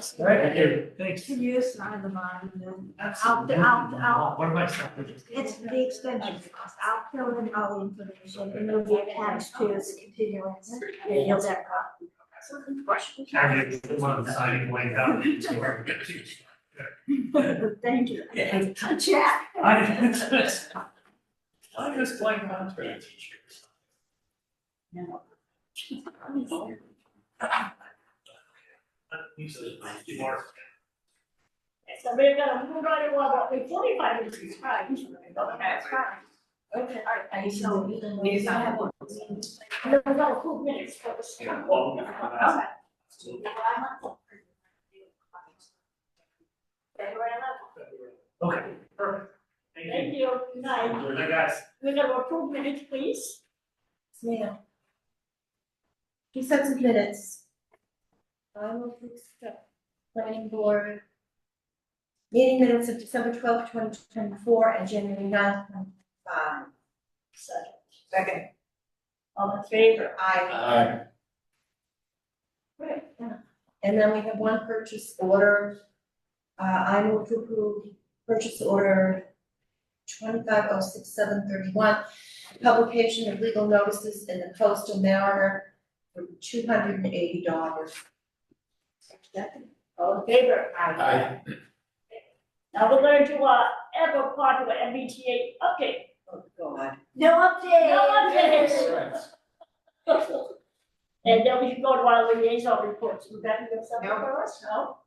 Thank you. Thanks. to you sign the mine, and then Absolutely. I'll- I'll- What am I stopping? it's the extension cost. I'll fill in all the information, and it'll be attached to his continuance, and he'll back up. Carry it one side way down. Thank you. Yeah. Jack. I just. I just playing around. Usually, more. So we're gonna move right along, but we forty-five minutes is fine. That's fine. Okay, all right, and so we can. We just don't have one. And then we've got two minutes for this. Yeah, well, no, I'm not- Okay. February eleventh. Okay, perfect. Thank Thank you. you, Good night. Good night, guys. We have approved minutes, please. Yeah. He said some minutes. I will fix the planning board. Meeting minutes of December twelfth, twenty twenty-four and January ninth, twenty five. Second. Second. All in favor? Aye. Aye. Great. Yeah. And then we have one purchase order. Uh, I move to approve purchase order twenty-five oh six seven thirty-one. Publication of legal notices in the coastal mariner for two hundred and eighty dollars. Second. All in favor? Aye. Now we're going to, uh, ever part of MBTA update. Oh, God. No update. No updates. Right. And then we can go to our liaison reports, you got them something No. for us, no?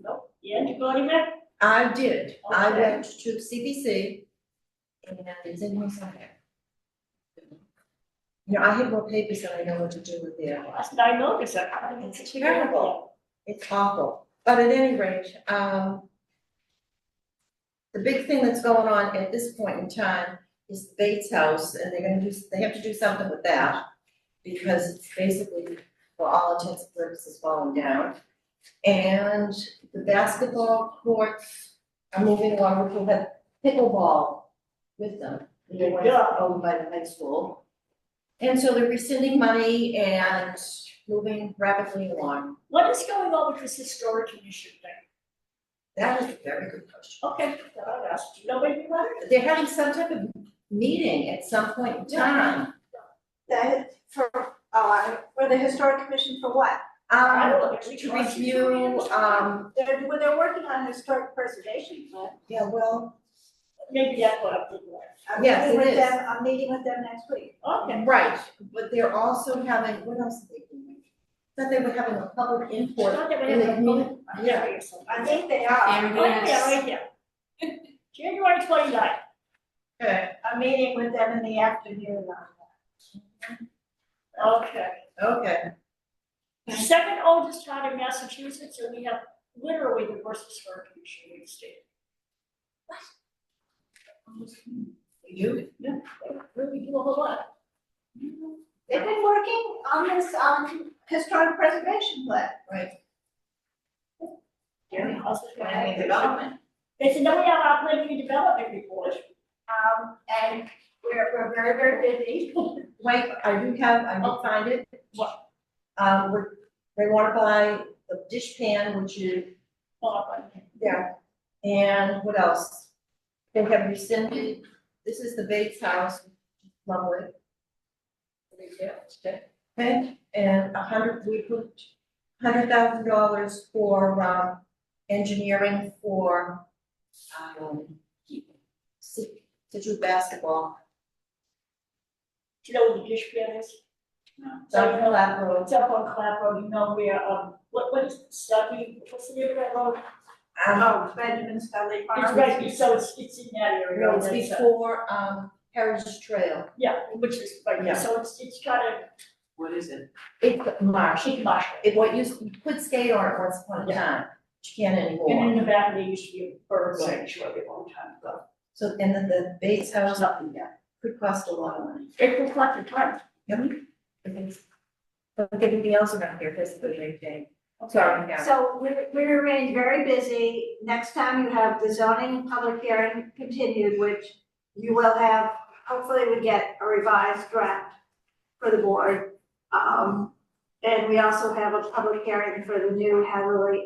No, yeah, you go to that? I did, I Okay. went to CBC and it's in my somewhere. You know, I have more papers than I know what to do with there. Last night, no, it's a. It's terrible. It's awful, but at any rate, um. The big thing that's going on at this point in time is the Bates House, and they're gonna do, they have to do something with that. Because it's basically, for all intents and purposes, falling down. And the basketball courts are moving along, we have pickleball with them. They went Yeah. over by the high school. And so they're rescinding money and moving rapidly along. What is going on with this historic commission thing? That is a very good question. Okay, I'll ask, do you know anything about it? They're having some type of meeting at some point in time. That for, uh, for the historic commission for what? I Um, don't know, we to can ask you to review, read it. um, They're, well, they're working on historic preservation, but yeah, well, Maybe that's what I'm thinking I'm Yes, meeting it with is. them, I'm meeting with them next week. of. Okay, um, right, but they're also having, what else are they doing? Thought they were having a public I input thought they were in the having a community. public hearing or something. I think they are. Right there, right there. January twenty ninth, Okay, I'm meeting with them in the afternoon on that. okay. okay, The Second oldest town in Massachusetts, and we have literally the worst historic commission in the state. you, Really do a whole lot. They've been working on this, um, historic preservation plan. Yeah, how's it going? Planning development. They said, no, we have our planning and development report. Um, and we're, we're very, very busy. wait, I do have, I did find it. What? Um, we're, they wanna buy the dish pan, which is Hold on, wait Yeah, and what else? They have rescinded, this is the Bates House, lovely. Okay, and a hundred, we put hundred thousand dollars for, um, engineering for, um, Sit- Situate basketball, Do you know where the dish pan is? South Hill Lab Road. It's up on Clapham, you know where, um, what, what is, Stubby, what's the name of that road? Um, Oh, Benjamin Scully Farm. It's right, it's- so it's, it's in that area. no, it's right, so- before, um, Heritage Trail. Yeah, which is, right, Yeah. there. so it's, it's kind of, It's marsh. she marsh. It, what used, you could skate on it once upon a Yeah. time, but you can't anymore. And in the back, there used to be a bird sanctuary a long time ago. So, and then the Bates There's House nothing there. could cost a lot of money. It looks like the time. But everything else around here has been maintained. So we're, we remain very busy. Next time you have the zoning public hearing continued, which you will have, hopefully we get a revised draft for the board. Um, and we also have a public hearing for the new Hathaway